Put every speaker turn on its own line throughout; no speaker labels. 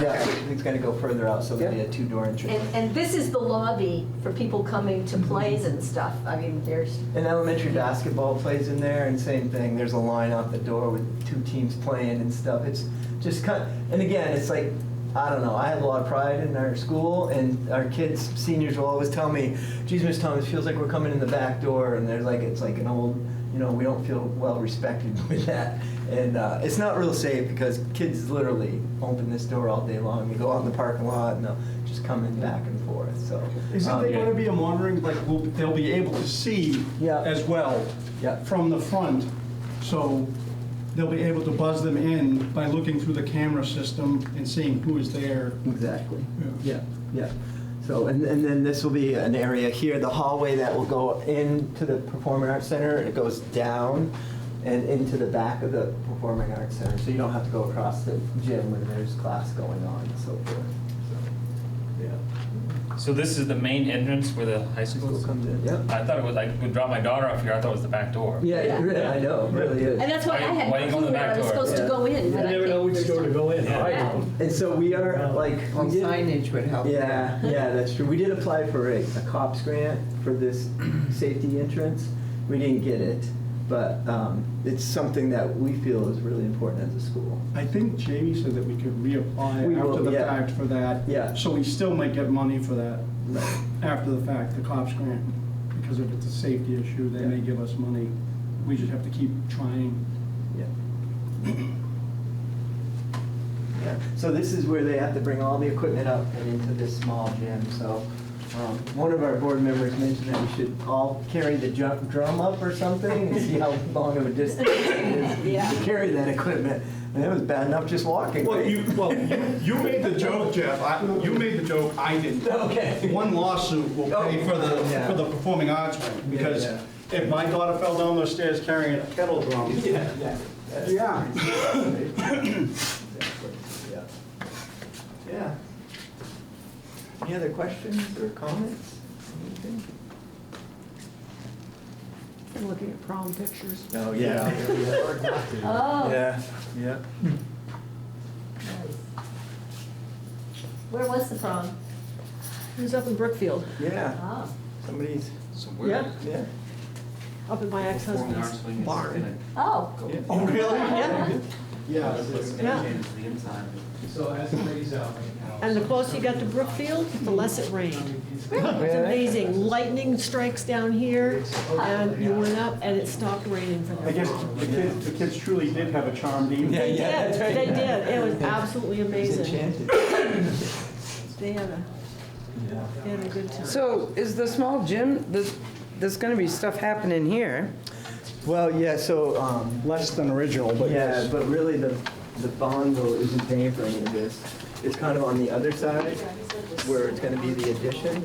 Yeah, it's gonna go further out, so maybe a two-door entrance.
And, and this is the lobby for people coming to plays and stuff. I mean, there's,
And elementary basketball plays in there, and same thing, there's a line out the door with two teams playing and stuff. It's just kind, and again, it's like, I don't know, I have a lot of pride in our school, and our kids, seniors will always tell me, geez, Miss Thomas, feels like we're coming in the back door, and they're like, it's like an old, you know, we don't feel well respected with that. And uh, it's not real safe, because kids literally open this door all day long, they go out in the parking lot, and they'll just come in back and forth, so.
Isn't
um,
there going to be a monitoring, like, we'll- they'll be able to see
Yeah.
as well
Yeah.
from the front? So they'll be able to buzz them in by looking through the camera system and seeing who is there.
Exactly.
Yeah.
Yeah, yeah. So, and, and then this will be an area here, the hallway that will go into the Performing Arts Center. It goes down and into the back of the Performing Arts Center. So you don't have to go across the gym when there's class going on and so forth. So, Yeah.
So this is the main entrance where the high school
School
is?
comes in, yep.
I thought it was, I would drop my daughter off here, I thought it was the back door.
Yeah, it really- I know, it really is.
and that's why I had
Why you
no
go in
clue
the
where I
back
was
door?
supposed to
Yeah.
go in.
You
and I
never
came
know which
first
door to
time.
go in,
Yeah.
I
Yeah.
don't.
And so we are like. we
Well,
did-
signage would help.
Yeah, yeah, that's true. We did apply for a, a COPS grant for this safety entrance. We didn't get it, but um, it's something that we feel is really important as a school.
I think Jamie said that we could
We
reapply
will,
after the
yeah.
fact for that.
Yeah.
So we still might get money for that after the fact, the cops grant. Because if it's a safety issue, they may
Yeah.
give us money. We just have to keep trying.
Yeah. Yeah. So this is where they have to bring all the equipment up and into this small gym. So um, one of our board members mentioned that we should all carry the jump drum up or something and see how long of a distance it
Yeah.
is to carry that equipment. And it was bad enough just walking.
Well,
right?
you, well, you- you made the joke, Jeff. I- You made the joke, I didn't.
Okay.
One lawsuit will pay for the,
Oh. Yeah.
for the performing arts wing, because
Yeah,
if my daughter fell down those stairs carrying a kettle drum.
Yeah.
Yeah.
Yeah. Any other questions or comments? Anything?
Looking at prom pictures.
No, yeah.
Oh,
Yeah, yeah.
where was the prom?
It was up in Brookfield,
Yeah,
Oh,
somebody's,
So
yeah,
where?
yeah.
up at my
Performing arts
ex-husband's
wing is
barn.
gonna
oh,
go-
Oh, really?
Yeah.
Yeah.
It's
Yeah.
gonna change the inside.
So as it rains out right now.
And the closer you got to Brookfield, the less it rained.
Yeah,
It's
that-
amazing. Lightning strikes down here, and you went up, and it stopped raining for
I guess
them.
the kids, the kids truly did have a charmed
Yeah,
evening.
They
yeah,
did,
that's right.
they did. It was absolutely
It's
amazing.
enchanted.
They had a,
Yeah.
they had a good time.
So is the small gym, there's, there's gonna be stuff happening here.
Well, yeah, so, um,
Less than original, but
Yeah,
yes.
but really the, the bongo isn't paying for any of this. It's kind of on the other side where it's gonna be the addition.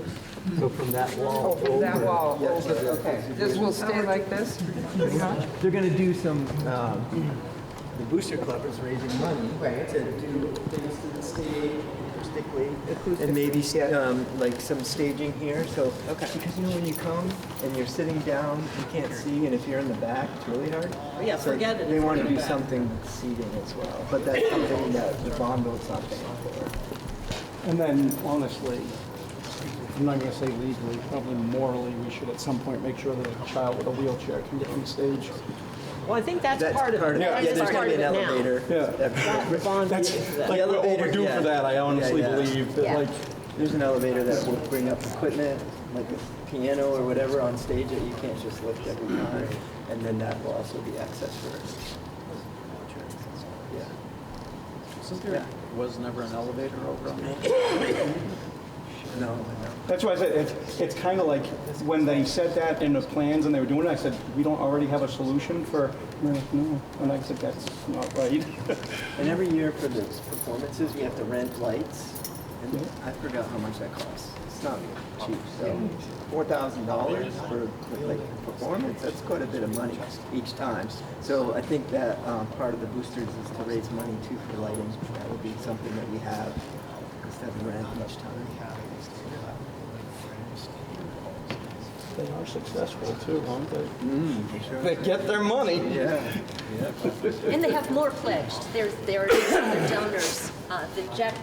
So from that wall over.
Oh, That wall
Yeah,
over,
yeah.
okay. This will stay like this? pretty much?
They're gonna do some, um, the Booster Club is raising money to do things to the stage acoustically. And maybe, um, like some staging here, so. Okay. Because you know when you come and you're sitting down, you can't see, and if you're in the back, it's really hard.
Oh, Yeah,
So
forget it
They
if
wanna
you're in
do
the back.
something seating as well, but that's something that the Bongo's not paying for.
And then honestly, I'm not gonna say legally, probably morally, we should at some point make sure that a child with a wheelchair can get on stage.
Well, I think that's part of it.
Yeah,
That's
there's
just
gonna
part
be
of
an
it now.
elevator.
Yeah.
That bond is for that.
Like,
The
we're
elevator,
overdue
yeah.
for that, I honestly
Yeah, yeah.
believe,
Yeah.
that like,
There's an elevator that will bring up equipment, like a piano or whatever on stage that you can't just lift every time. And then that will also be access for. Yeah.
Was never an elevator over on that?
No, no.
That's why I said, it's, it's kind of like, when they said that in the plans and they were doing it, I said, we don't already have a solution for, and they're like, no, and I said, that's not right.
And every year for the performances, we have to rent lights. And I forgot how much that costs. It's not cheap, so four thousand dollars for like a performance, that's quite a bit of money each time. So I think that um, part of the boosters is to raise money too for lighting. That would be something that we have instead of rent each time.
They are successful too, aren't they?
Mm,
They get their money.
Yeah.
and they have more pledged. There's, there are other donors. Uh, The Jack